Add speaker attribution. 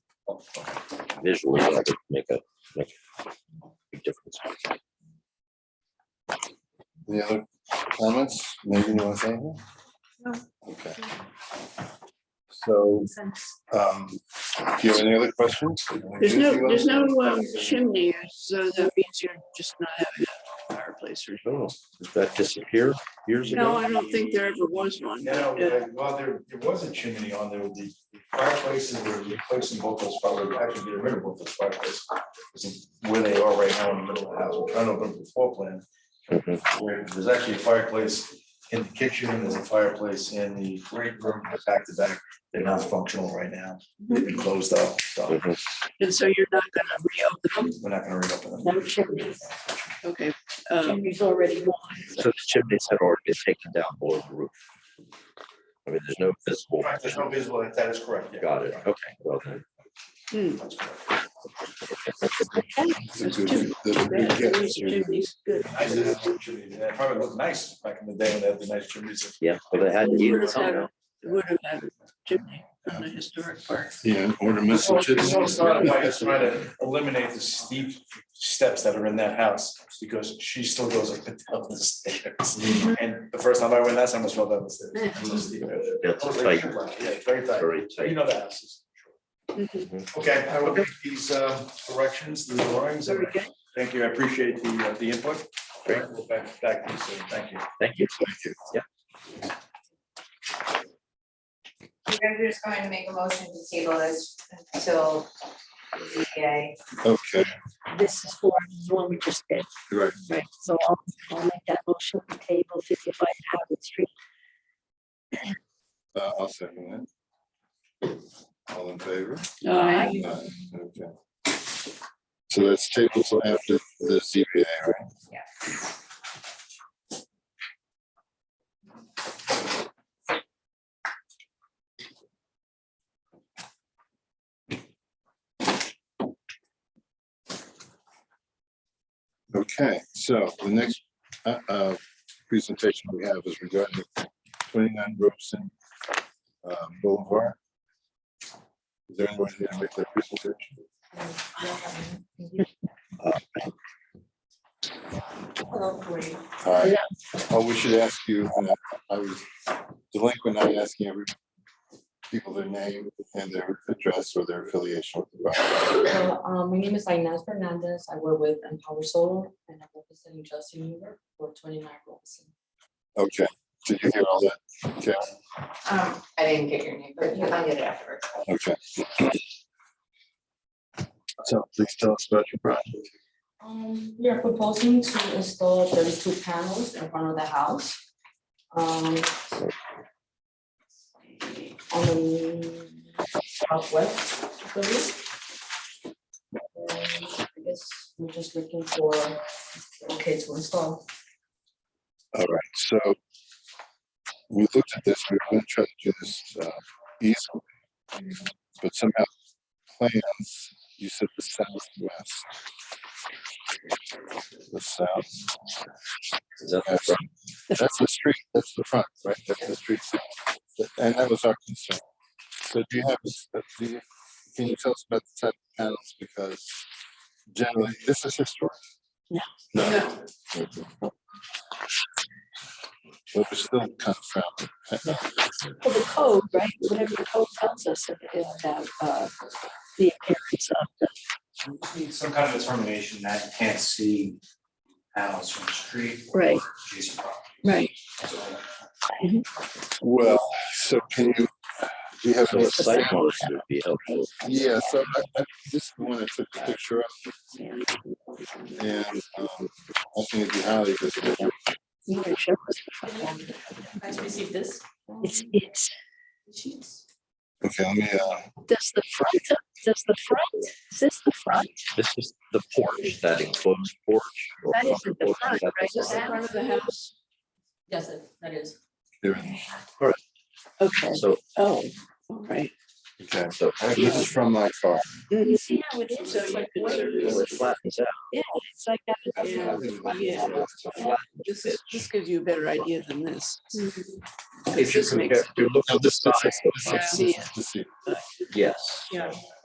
Speaker 1: visually, that would make a, make a big difference.
Speaker 2: Any other comments? Megan, you want to say anything?
Speaker 3: No.
Speaker 2: Okay. So, um, do you have any other questions?
Speaker 4: There's no, there's no um, chimney, so that means you're just not having a fireplace or.
Speaker 1: Oh, did that disappear years
Speaker 4: No,
Speaker 1: ago?
Speaker 4: I don't think there ever was one.
Speaker 5: No,
Speaker 4: Yeah.
Speaker 5: uh, well, there, there was a chimney on there, the fireplaces were replacing both those fireplaces, actually getting rid of both those fireplaces. It's Where they are right now in the middle of the house, we're trying to open up the floor plan,
Speaker 1: Mhm.
Speaker 5: where there's actually a fireplace in the kitchen, and there's a fireplace in the great room, back to back. They're not functional right now, they've been closed up, so
Speaker 1: Mhm.
Speaker 4: And so you're not gonna reopen
Speaker 5: we're not gonna reopen them.
Speaker 6: No chimneys.
Speaker 4: them? Okay. um,
Speaker 6: Chimneys already gone.
Speaker 1: So the chimneys had already been taken down below the roof. I mean, there's no visible,
Speaker 5: Right, There's no visible, like that is correct. yeah.
Speaker 1: got it, okay, well then.
Speaker 4: hmm,
Speaker 5: That's correct.
Speaker 2: That's a good- that's a good
Speaker 4: yeah,
Speaker 2: guess.
Speaker 4: these chimneys, good.
Speaker 5: I did have a chimney, and that probably looked nice back in the day when they had the nice chimneys.
Speaker 1: Yeah, well, they had to eat
Speaker 4: Would
Speaker 1: it
Speaker 4: have had
Speaker 1: somehow.
Speaker 4: a- would have had a chimney on the historic park.
Speaker 2: Yeah, or to
Speaker 5: Well, it's all started by just trying
Speaker 2: message.
Speaker 5: to eliminate the steep steps that are in that house, because she still goes up and down the
Speaker 1: Mm-hmm.
Speaker 5: stairs. And the first time I went last time, I was fell down the stairs. It's so steep.
Speaker 1: That's a tight,
Speaker 5: Yeah, it's very tight,
Speaker 1: very
Speaker 5: you
Speaker 1: tight.
Speaker 5: know the houses. Okay, I will get these uh, corrections, the drawings,
Speaker 4: Very
Speaker 5: and
Speaker 4: good.
Speaker 5: thank you, I appreciate the, uh, the input. All right, We'll back, back to you soon, thank you.
Speaker 1: Thank you. Yeah,
Speaker 7: We're just going to make a motion to table this until the ZBA.
Speaker 2: Okay,
Speaker 6: This is for the one we just did.
Speaker 2: Right.
Speaker 6: Right, so I'll, I'll make that motion to table fifty-five Howard Street.
Speaker 2: uh, I'll second that. All in favor?
Speaker 4: Aye.
Speaker 2: Aye, Okay. So that's table till after the CBA, right? Okay, so the next uh, uh, presentation we have is regarding twenty-nine Robeson uh, Boulevard. Is there anyone here to make that presentation? All right. Oh, we should ask you, uh, I was delinquent, not asking every people their name and their address or their affiliation with the project.
Speaker 8: So, um, my name is Inez Fernandez. I work with Empower Solar and I'm representing Justin Hoover for twenty-nine Robinson.
Speaker 2: Okay, did you hear all that? Okay,
Speaker 7: Um, I didn't get your name, but I'll get it afterwards.
Speaker 2: okay. So please tell us about your project.
Speaker 8: Um, we are proposing to install thirty-two panels in front of the house. Um. On the southwest. of the roof. And I guess we're just looking for, okay, to install.
Speaker 2: All right, so we looked at this, we were gonna try to do this uh, easily. But somehow plans, you said the southwest. The south.
Speaker 1: is that the
Speaker 2: That's
Speaker 1: front?
Speaker 2: that's the street, that's the front, right, that's the street, side. and that was our concern. So do you have, a s- uh, do you, can you tell us about the type of panels, because generally, this is historic?
Speaker 6: No.
Speaker 2: No. Okay. But we're still kind of found,
Speaker 6: Well, the code, right, whatever the code tells us about, uh, the appearance of the
Speaker 9: need some kind of determination that you can't see panels from the street
Speaker 4: Right,
Speaker 9: adjacent property.
Speaker 4: right.
Speaker 9: So
Speaker 2: well, so can you, do you have?
Speaker 1: So
Speaker 2: any-
Speaker 1: a site model would be helpful.
Speaker 2: Yeah, so I, I, this is the one I took the picture of, and, um, I think it'd be highly visible.
Speaker 6: You can show us before.
Speaker 8: Guys received this? um,
Speaker 6: It's, it's,
Speaker 8: Sheets.
Speaker 2: Okay, let me, uh,
Speaker 6: does the front, does the front, is this the front?
Speaker 1: This is the porch, that enclosed porch. or
Speaker 6: That isn't the
Speaker 1: porch,
Speaker 6: front,
Speaker 1: is that the
Speaker 6: right?
Speaker 4: Just in front of the house.
Speaker 8: Yes, it- that is.
Speaker 2: here,
Speaker 4: Okay,
Speaker 1: front? So,
Speaker 4: oh, all right.
Speaker 2: okay,
Speaker 1: so
Speaker 2: this is from my car.
Speaker 6: You see how it is?
Speaker 4: So
Speaker 6: It's
Speaker 4: you
Speaker 6: like,
Speaker 4: could
Speaker 6: way-
Speaker 4: service-
Speaker 1: it flattens out.
Speaker 6: it's like that.
Speaker 4: Yeah. Yeah. This is, this gives you a better idea than this. Because
Speaker 1: If you
Speaker 4: this makes-
Speaker 1: compare, if you look
Speaker 2: No,
Speaker 1: at the
Speaker 2: this- this is-
Speaker 1: side,
Speaker 2: this is-
Speaker 4: Yeah.
Speaker 2: this is-
Speaker 1: yes.